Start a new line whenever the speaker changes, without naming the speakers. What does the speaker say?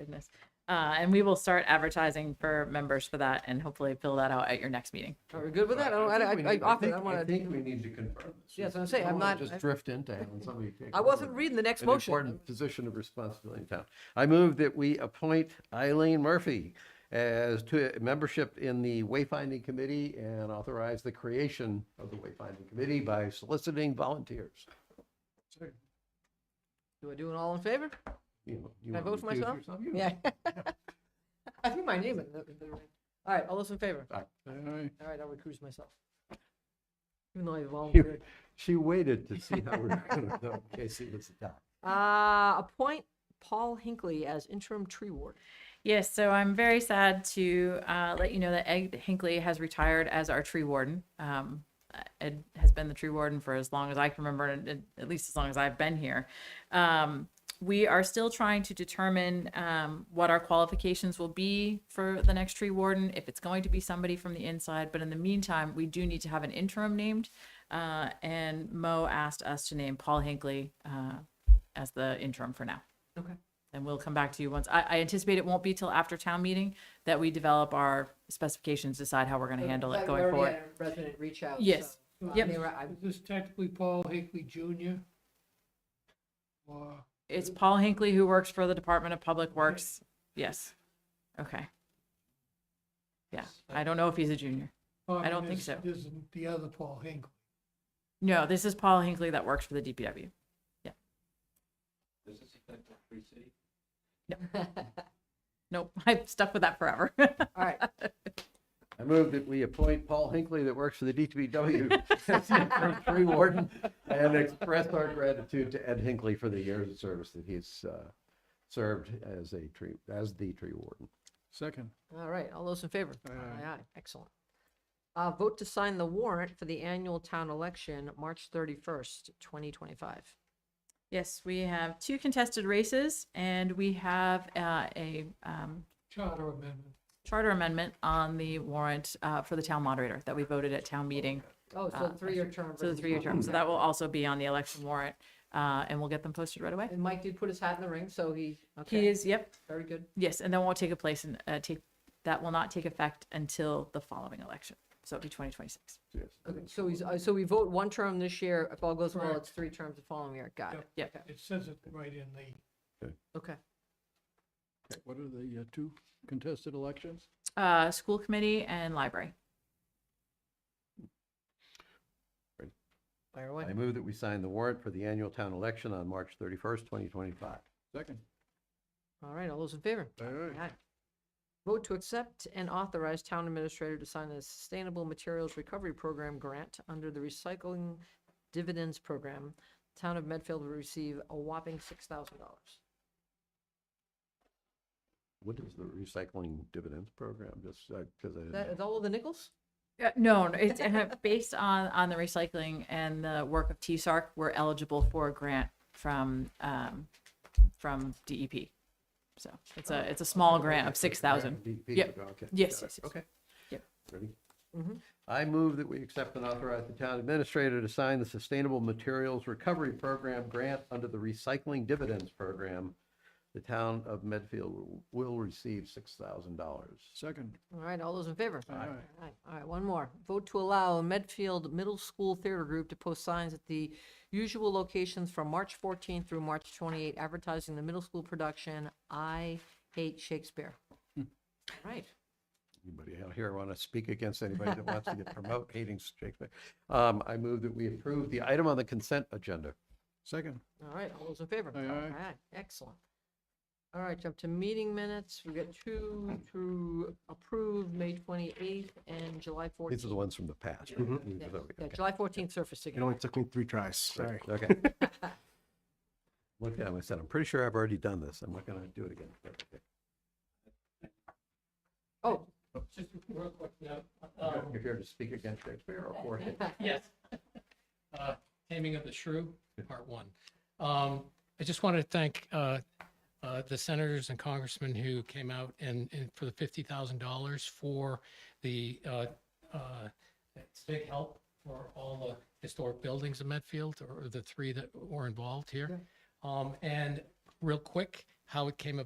anyways. Uh, and we will start advertising for members for that and hopefully fill that out at your next meeting.
Are we good with that? I don't,
think we
I, I, I
need-
often,
think-
I wanna,
think we need to confirm this.
Yeah, that's what I'm
We
saying.
don't
I'm
wanna
not- I-
Just drift into having somebody take.
I wasn't
over
reading the next
an
motion.
important Position of responsibility in town. I move that we appoint Eileen Murphy as to membership in the wayfinding committee and authorize the creation of the wayfinding committee by soliciting volunteers.
Do I do it all in favor?
You know, you
Can I
wanna
vote for
recuse
myself?
yourself? You-
Yeah. I think my name is. All right, all those in favor?
Aye.
All right, I'll recuse myself. Even though I
You-
volunteered.
She waited to see how we we're gonna vote in case it was adopted.
Uh, appoint Paul Hinckley as interim tree ward.
Yes, so I'm very sad to uh, let you know that Ed Hinckley has retired as our tree warden. Um, Ed has been the tree warden for as long as I can remember, and and at least as long as I've been here. Um, we are still trying to determine um, what our qualifications will be for the next tree warden, if it's going to be somebody from the inside. But in the meantime, we do need to have an interim named. Uh, and Mo asked us to name Paul Hinckley uh, as the interim for now
Okay.
and we'll come back to you once. I, I anticipate it won't be till after town meeting that we develop our specifications, decide how we're gonna handle it going forward.
Resident reach out.
Yes.
so, uh,
Yep.
they were- I-
Is this technically Paul Hinckley Jr.? Or,
It's Paul Hinckley who works for the Department of Public Works. Yes. Okay. Yeah, I don't know if he's a junior. I don't think
this-
so.
This is the other Paul Hinckley.
No, this is Paul Hinckley that works for the DPW. Yeah. Nope, I've stuck with that forever.
All right,
I move that we appoint Paul Hinckley that works for the DPW as the interim tree warden and express our gratitude to Ed Hinckley for the years of service that he's uh, served as a tree, as the tree warden.
Second.
all right, all those in favor?
Aye, aye.
Aye, aye, excellent. Uh, vote to sign the warrant for the annual town election, March thirty-first, twenty twenty-five.
Yes, we have two contested races and we have uh, a um,
Charter amendment.
charter amendment on the warrant uh, for the town moderator that we voted at town meeting.
Oh, so
Uh,
three-year term.
So the
versus
three-year
one.
term, so that will also be on the election warrant, uh, and we'll get them posted right away.
And Mike did put his hat in the ring, so he,
He
okay,
is, yep,
very good.
yes, and that won't take a place and, uh, take, that will not take effect until the following election, so it'll be twenty twenty-six.
Yes.
Okay, So he's, uh, so we vote one term this year, if all goes well,
Correct.
it's three terms the following year, got it,
Yep,
It says it right in the.
okay.
What are the two contested elections?
uh, school committee and library.
Fire away.
I move that we sign the warrant for the annual town election on March 31st, 2025.
Second.
All right, all those in favor? Aye. Vote to accept and authorize town administrator to sign a Sustainable Materials Recovery Program grant under the Recycling Dividends Program. Town of Medfield will receive a whopping six thousand dollars.
What is the recycling dividends program? Just because I didn't
That
know.
is all of the nickels?
Uh, no, no, it's uh, based on, on the recycling and the work of TSARC, we're eligible for a grant from, um, from DEP. So it's a, it's a small grant of six thousand.
DEP,
Yep.
okay,
Yes,
got
yes,
it.
yes.
Okay.
Yep. Mm-hmm.
Ready?
Mhm.
I move that we accept and authorize the town administrator to sign the Sustainable Materials Recovery Program grant under the Recycling Dividends Program. The town of Medfield will- will receive six thousand dollars.
Second.
All right, all those in favor?
Aye.
All right, all right, one more. Vote to allow Medfield Middle School Theater Group to post signs at the usual locations from March 14th through March 28th, advertising the middle school production, I Hate Shakespeare.
Hmm.
All Right.
Anybody out here want to speak against anybody that wants to get promote hating Shakespeare? Um, I move that we approve the item on the consent agenda.
Second.
all right, all those in favor?
Aye, aye.
All right, excellent. All right, jump to meeting minutes. We've got two to approve, May 28th and July 14th.
These are the ones from the past. We-
Yes, Yeah,
okay.
July 14th surface
It
signature.
only took me three tries. Sorry.
Okay. Looked at him, I said, I'm pretty sure I've already done this. I'm not going to do it again. But, okay.
Oh,
Just real quick note,
You're here to speak against Shakespeare or for him?
Yes. Uh, Taming of the Shrew, Part One. Um, I just want to thank uh, uh, the senators and congressmen who came out and, and for the fifty thousand dollars for the, uh, uh, it's a big help for all the historic buildings in Medfield, or the three that were involved here. Um, And real quick, how it came